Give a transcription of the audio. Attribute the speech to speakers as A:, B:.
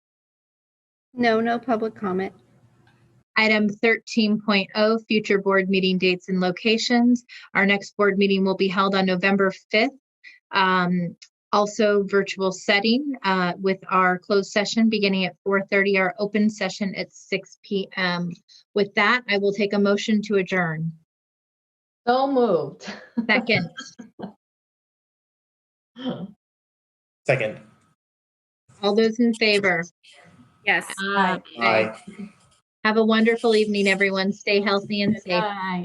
A: No, no public comment.
B: Item 13.0, future board meeting dates and locations. Our next board meeting will be held on November 5th. um, Also virtual setting uh, with our closed session beginning at 4:30, our open session at 6 PM. With that, I will take a motion to adjourn.
C: So moved.
B: Second,
D: Second.
B: all those in favor?
A: Yes.
B: Have a wonderful evening, everyone. Stay healthy and safe.
C: Aye.